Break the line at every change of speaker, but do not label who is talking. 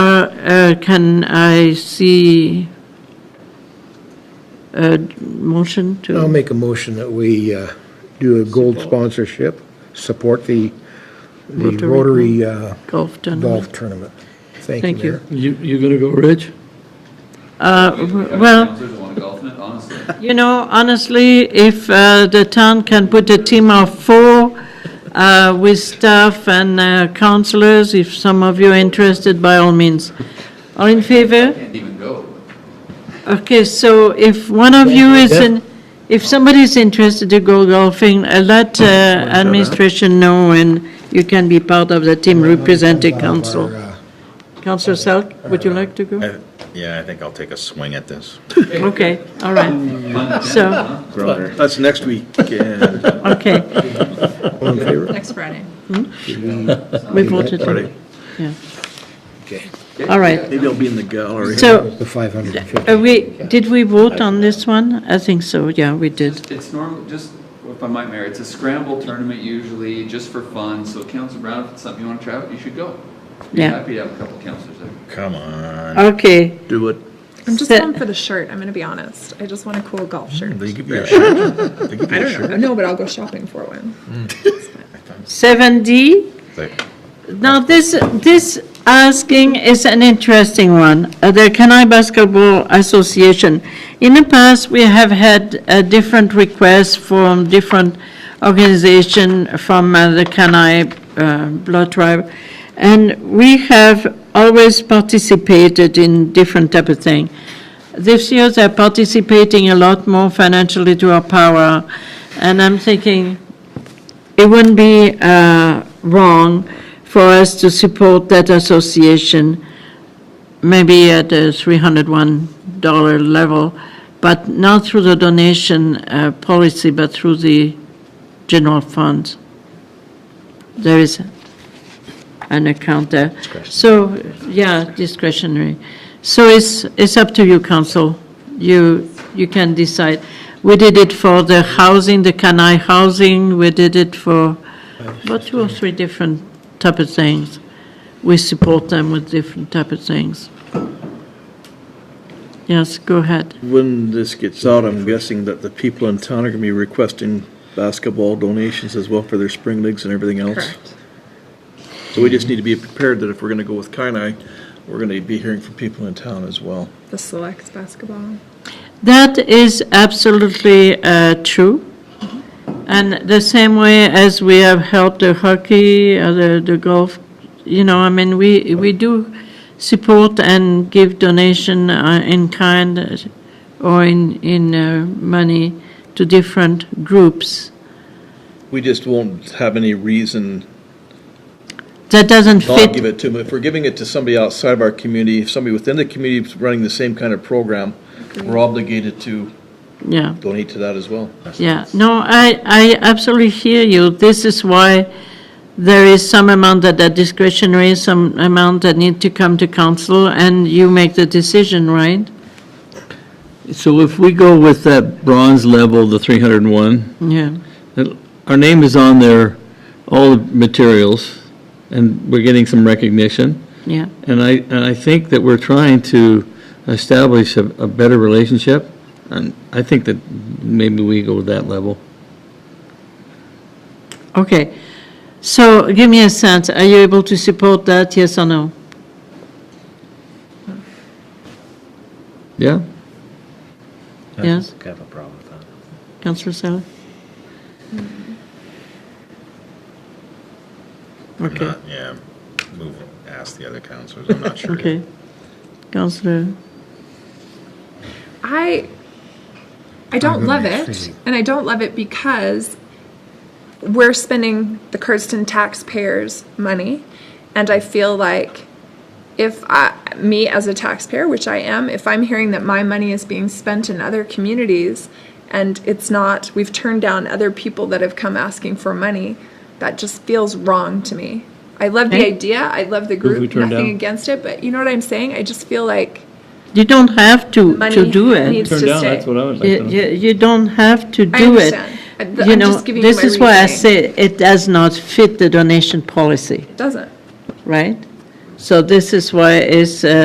uh, can I see a motion
I'll
to?
make a motion that we uh, do a gold sponsorship, support the, the
Rotary
Rotary uh,
Golf tournament.
Golf Tournament. Thank
Thank
you,
you.
Mayor.
You, you gonna go, Rich?
Uh, well-
Counselors want to golf in it, honestly.
You know, honestly, if uh, the town can put a team of four uh, with staff and uh, counselors, if some of you are interested, by all means. All in favor?
Can't even go.
Okay, so if one of you is in, if somebody's interested to go golfing, uh, let uh, administration know and you can be part of the team representing
Our,
council.
uh,
Councillor Selk, would you like to go?
I- Yeah, I think I'll take a swing at this.
Okay, all right, so,
That's next week. uh,
okay,
All in favor?
Next Friday.
we voted. it.
Friday.
Yeah,
Okay.
all right.
Maybe I'll be in the gallery.
So,
The 550.
uh, we, did we vote on this one? I think so, yeah, we did.
Just- It's normal, just, if I might, Mayor, it's a scramble tournament usually, just for fun, so Council Brown, if it's something you want to try out, you should go. Be
Yeah.
happy to have a couple councilors there.
Come on,
Okay,
do it.
I'm just
Sit.
going for the shirt. I'm going to be honest. I just want a cool golf shirt.
They give you a shirt. They give
I
you a
don't know.
shirt.
No, but I'll go shopping for one.
seven D?
They-
Now, this, this asking is an interesting one, Uh, the Kenai Basketball Association. In the past, we have had uh, different requests from different organization from uh, the Kenai uh, Blood Tribe, and we have always participated in different type of thing. This year, they're participating a lot more financially to our power, and I'm thinking, it wouldn't be uh, wrong for us to support that association, maybe at the $301 level, but not through the donation uh, policy, but through the general funds. There is an account there. So, yeah, discretionary. So it's, it's up to you, council. You, you can decide. We did it for the housing, the Kanai housing, we did it for about two or three different type of things. We support them with different type of things. Yes, go ahead.
When this gets out, I'm guessing that the people in town are gonna be requesting basketball donations as well for their spring leagues and everything else.
Correct.
So we just need to be prepared that if we're gonna go with Kainai, we're gonna be hearing from people in town as well.
The select basketball.
That is absolutely uh, true. And the same way as we have helped the hockey, uh, the the golf, you know, I mean, we, we do support and give donation uh, in kind uh, or in, in uh, money to different groups.
We just won't have any reason
That doesn't
not give
fit,
it to them. If we're giving it to somebody outside of our community, if somebody within the community is running the same kind of program, we're obligated to
yeah.
donate to that as well.
Yeah, no, I, I absolutely hear you. This is why there is some amount that are discretionary, some amount that need to come to council, and you make the decision, right?
So if we go with that bronze level, the 301,
Yeah,
that- our name is on there, all the materials, and we're getting some recognition.
yeah.
And I, and I think that we're trying to establish a, a better relationship, and I think that maybe we go to that level.
Okay, so give me a sense, are you able to support that, yes or no?
Yeah?
Yes,
I have a problem with that.
Councillor Sally?
I'm
Okay,
not, yeah, move, ask the other counselors, I'm not sure.
okay. Councillor,
I I don't love it, and I don't love it because we're spending the Curdston taxpayers' money, and I feel like if I, me as a taxpayer, which I am, if I'm hearing that my money is being spent in other communities, and it's not, we've turned down other people that have come asking for money, that just feels wrong to me. I love the
Okay.
idea. I love the
Who've we
group.
turned
Nothing
down?
against it, but you know what I'm saying? I just feel like
you don't have to, to
money
do it.
needs to stay.
I would
You, you you don't have to
I
do it.
understand. I- th-
You
I'm
know,
just giving you
this
my
is why I
reasoning.
say it does not fit the donation policy,
Doesn't.
right? So this is why it's uh,